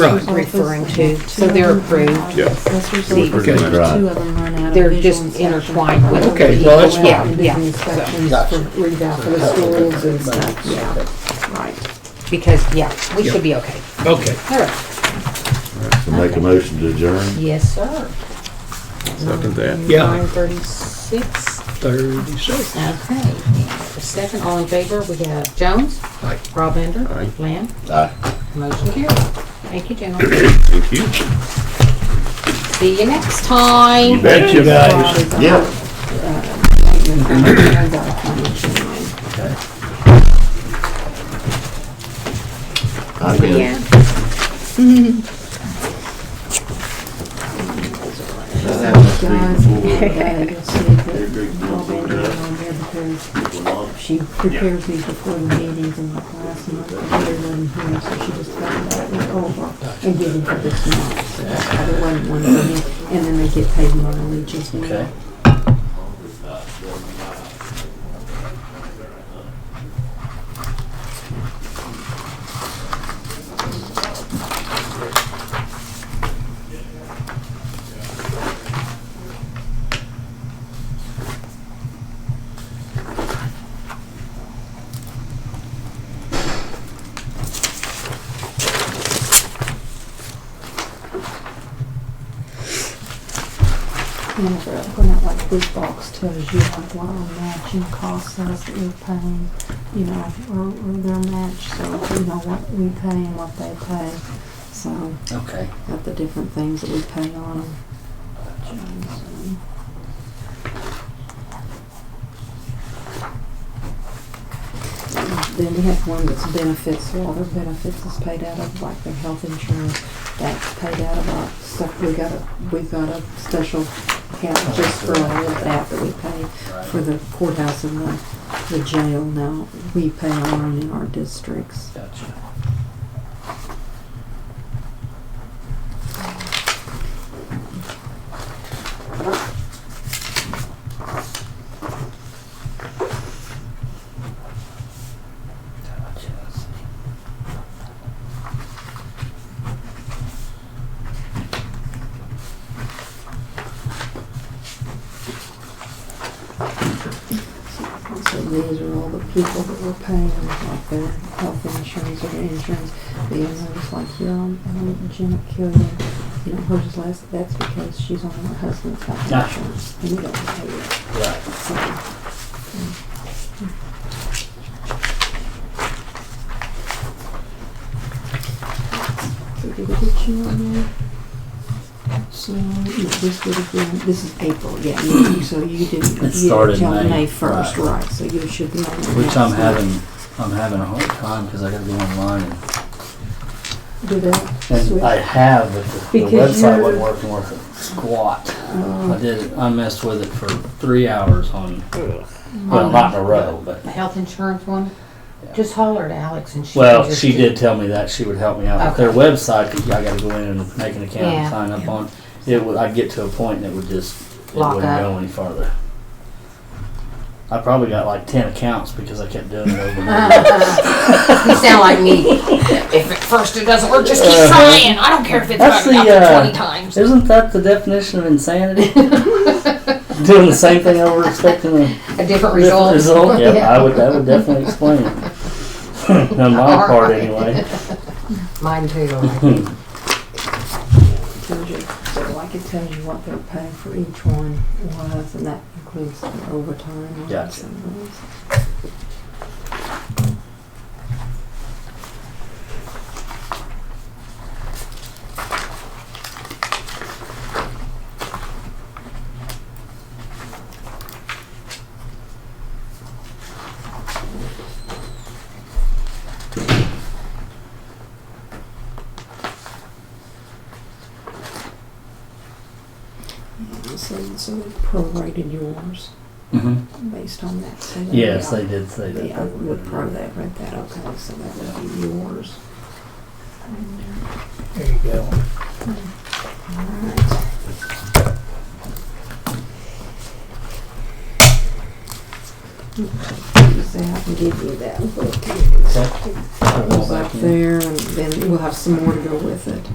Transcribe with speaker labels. Speaker 1: Right.
Speaker 2: referring to,
Speaker 3: Oh, Two
Speaker 2: so they're
Speaker 3: of them are
Speaker 2: approved.
Speaker 3: out.
Speaker 4: Yeah.
Speaker 3: Accessories,
Speaker 2: It was
Speaker 3: two
Speaker 4: pretty much-
Speaker 3: of them are out.
Speaker 2: They're
Speaker 3: Visual
Speaker 2: just
Speaker 3: inspection.
Speaker 2: intertwined with
Speaker 1: Okay, well, that's
Speaker 3: People out
Speaker 2: fine.
Speaker 3: and
Speaker 2: Yeah,
Speaker 3: do
Speaker 2: yeah.
Speaker 3: inspections
Speaker 1: Gotcha.
Speaker 3: for reval- for the schools and stuff, yeah, right.
Speaker 2: Because, yeah, we should be okay.
Speaker 1: Okay.
Speaker 2: All right.
Speaker 5: So make a motion to adjourn.
Speaker 2: Yes, sir.
Speaker 4: Second that.
Speaker 1: Yeah.
Speaker 2: Nine thirty-six.
Speaker 1: Thirty-six.
Speaker 2: Okay. Second, all in favor, we have Jones,
Speaker 1: Aye.
Speaker 2: Rob Ender,
Speaker 4: Aye.
Speaker 2: Lamb,
Speaker 5: Aye.
Speaker 2: motion carried. Thank you, gentlemen.
Speaker 4: Thank you.
Speaker 2: See you next time.
Speaker 4: You bet you guys.
Speaker 5: Yeah. I'm in.
Speaker 2: Yeah.
Speaker 5: That must be
Speaker 3: Guys,
Speaker 5: before-
Speaker 3: uh, you'll see that
Speaker 5: They're big
Speaker 3: all
Speaker 5: ones
Speaker 3: they
Speaker 5: over
Speaker 3: did
Speaker 5: there.
Speaker 3: on there because
Speaker 5: People love
Speaker 3: She prepares these before the meetings and like last month, the leader wasn't here, so she just got that went over and gave it for this month. So that's why there wasn't one for me, and then they get paid mileage as well. And if they're going out like this box tells you like what our matching costs us that we're paying, you know, or, or their match, so you know what we pay and what they pay. So,
Speaker 6: Okay.
Speaker 3: got the different things that we pay on them. Johnson. Then we have one that's benefits, so all their benefits is paid out of, like their health insurance, that's paid out of our stuff, we got a, we've got a special account just for all of that that we pay for the courthouse and the, the jail now, we pay our own in our districts.
Speaker 6: Gotcha. Gotcha.
Speaker 3: So these are all the people that were paying, like their health insurance or their insurance, the others, like your, um, um, Jenna Killian, you know, hers last, that's because she's on her husband's health
Speaker 6: Gotcha.
Speaker 3: insurance, and we don't pay it,
Speaker 6: Right.
Speaker 3: so. So did we get you on there? So, no, this would have been, this is April, yeah, you- so you didn't, you
Speaker 6: It started
Speaker 3: didn't tell
Speaker 6: May,
Speaker 3: May first,
Speaker 6: right.
Speaker 3: right, so you should be on the
Speaker 6: Which
Speaker 3: next
Speaker 6: I'm
Speaker 3: one.
Speaker 6: having, I'm having a hard time because I gotta go online and,
Speaker 3: Do that,
Speaker 6: and I
Speaker 3: switch,
Speaker 6: have, but the- the
Speaker 3: Because
Speaker 6: website
Speaker 3: you're-
Speaker 6: wasn't working worth a squat.
Speaker 3: Oh,
Speaker 6: I
Speaker 2: Mm.
Speaker 6: did, I messed with it for three hours on,
Speaker 2: Mm.
Speaker 6: well, not in a row, but,
Speaker 2: The health insurance one, just holler at Alex and she. can
Speaker 6: well,
Speaker 2: just
Speaker 6: she
Speaker 2: do-
Speaker 6: did tell me that she would help me out with their website, 'cause I gotta go in and make an account
Speaker 2: Yeah.
Speaker 6: and sign up on. It would, I'd get to a point and it would just, it
Speaker 2: Lock
Speaker 6: wouldn't
Speaker 2: up.
Speaker 6: go any farther. I probably got like ten accounts because I kept doing it over and over.
Speaker 2: You sound like me. If at first it doesn't work, just keep trying. I don't care if it's
Speaker 6: Uh-huh. That's
Speaker 2: fucked up
Speaker 6: the, uh,
Speaker 2: twenty times.
Speaker 6: Isn't that the definition of insanity? Doing the same thing over expecting a
Speaker 2: A different
Speaker 6: different
Speaker 2: result.
Speaker 6: result? Yeah, I would, that would definitely explain it. On my part,
Speaker 2: Alright.
Speaker 6: anyway.
Speaker 2: Mine too.
Speaker 3: tells you, so like it tells you what they're paying for each one was, and that includes the overtime. ones
Speaker 6: Gotcha.
Speaker 3: and those. Yeah, So, so they prorated yours
Speaker 6: Mhm.
Speaker 3: based on that. so that-
Speaker 6: Yes, they did say that.
Speaker 3: Yeah, I would probably have read that, okay, so that would be yours.
Speaker 1: There you go.
Speaker 3: Alright. Use that and give you that.
Speaker 6: Okay. I'll go
Speaker 3: Goes
Speaker 6: back
Speaker 3: up
Speaker 6: in.
Speaker 3: there, and then we'll have some more to go with it.